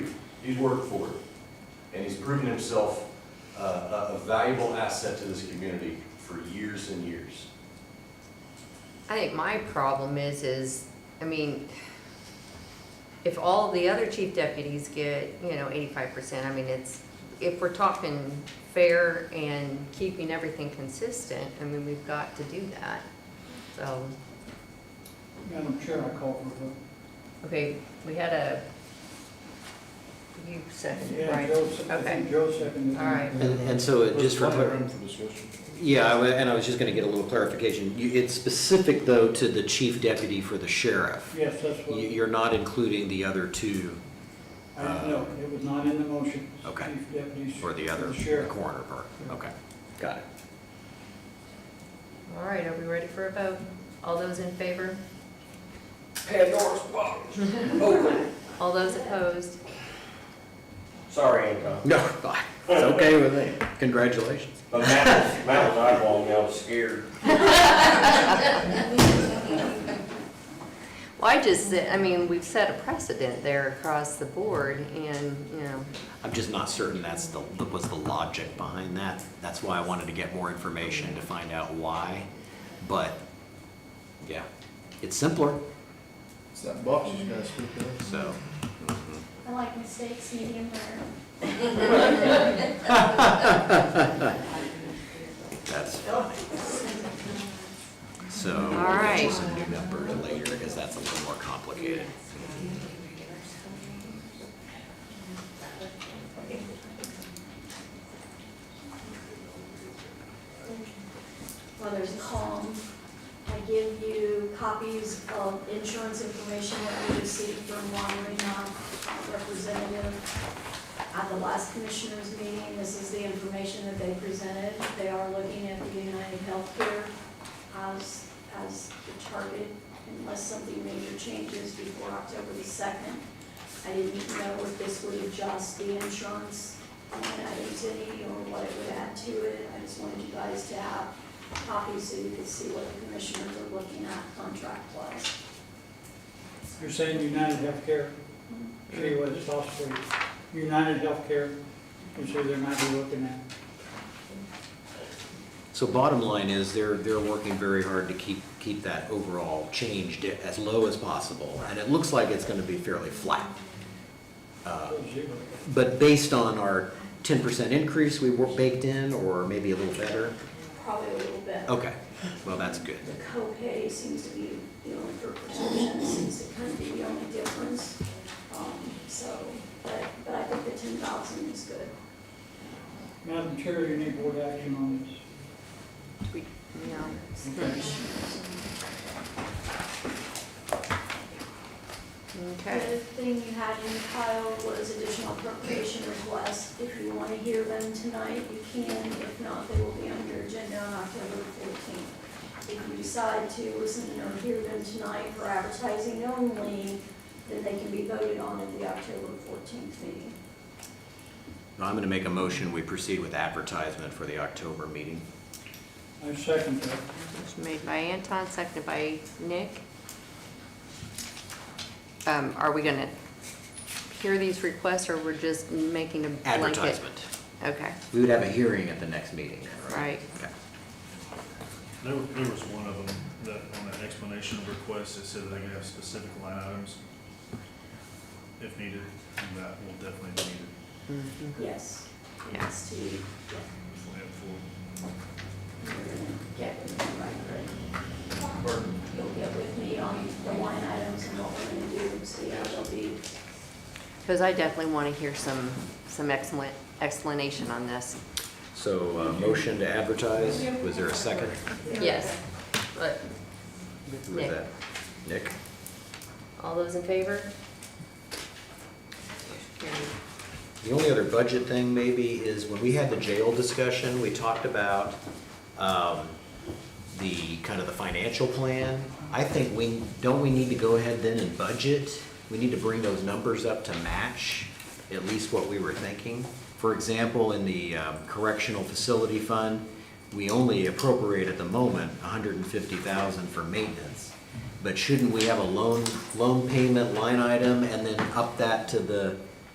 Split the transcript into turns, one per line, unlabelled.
He's worked for it, and he's proven himself uh, a a valuable asset to this community for years and years.
I think my problem is, is, I mean, if all the other chief deputies get, you know, eighty-five percent, I mean, it's, if we're talking fair and keeping everything consistent, I mean, we've got to do that. So,
Madam Chair, I call for
okay, we had a, you
the vote.
seconded,
Yeah,
right?
Joe, se- I think
Okay,
Joe seconded. it.
All right.
And, and so it just for, clar-
for discussion.
yeah, I wa- and I was just gonna get a little clarification. You, it's specific though to the chief deputy for the sheriff.
Yes, that's
You,
what,
you're not including the other two
I know, it was not in the motion.
uh, Okay.
Chief Deputy.
or the other
Sheriff.
coroner part. Okay, got it.
all right, are we ready for a vote? All those in favor?
Pandora's box. Open.
All those opposed?
Sorry, Anton.
No, it's okay with me. Congratulations.
But Matt was, Matt was eyeballing me. I was scared.
Well, I just, said- I mean, we've set a precedent there across the board and, you know,
I'm just not certain that's the, that was the logic behind that. That's why I wanted to get more information to find out why. But, yeah, it's simpler,
It's that box you guys speak of.
so.
I like mistakes, medium rare.
That's fine. So we'll
All
get you
right.
some new numbers later because that's a little more complicated.
Well, there's calm. I give you copies of insurance information that we received from Juan Reno, representative. At the last commissioners meeting, this is the information that they presented. They are looking at the United Healthcare as, as the target unless something major changes before October the second. I didn't know if this would adjust the insurance line items any or what it would add to it. I just wanted you guys to have copies so you could see what the commissioners are looking at contract-wise.
You're saying United Healthcare, show you what it's cost for you. United Healthcare, I'm sure they might be looking at.
So bottom line is they're, they're working very hard to keep, keep that overall change di- as low as possible. And it looks like it's going to be fairly flat. Uh,
Zero.
But based on our 10% increase we were baked in or maybe a little better,
Probably a little bit.
okay, well, that's good.
The co-pay seems to be the only, for protection seems to kind of be the only difference. Um, So, but, but I think the ten thousand is good.
Madam Chair, you need board action on this.
we, you know,
Okay.
The
okay.
other thing you had in the file was additional appropriation requests. If you want to hear them tonight, you can. If not, they will be on your agenda on October fourteenth. If you decide to listen or hear them tonight for advertising only, then they can be voted on at the October fourteenth meeting.
I'm going to make a motion, we proceed with advertisement for the October meeting.
I second that.
Motion made by Anton, seconded by Nick. Um, are we gonna hear these requests, or we're just making a blanket?
Advertisement.
Okay,
We would have a hearing at the next meeting.
right,
Okay.
There, wa- there was one of them that, on that explanation of requests, it said they could have specific line items if needed, and that will definitely be needed.
Yes.
Mm-hmm. Yeah.
Yes, to,
if we have full-
you're gonna get with me, right, Greg? You'll get with me on the line items and what we're gonna do, so yeah, there'll be
because I definitely want to hear some, some excellent explanation on this.
So, uh, motion to advertise, was there a second?
Yes, but,
Who was
Nick.
that? Nick?
all those in favor? Carried.
The only other budget thing maybe is when we had the jail discussion, we talked about um, the, kind of the financial plan. I think we, don't we need to go ahead then and budget? We need to bring those numbers up to match at least what we were thinking. For example, in the um, correctional facility fund, we only appropriate at the moment hundred and fifty thousand for maintenance. But shouldn't we have a loan, loan payment line item and then up that to the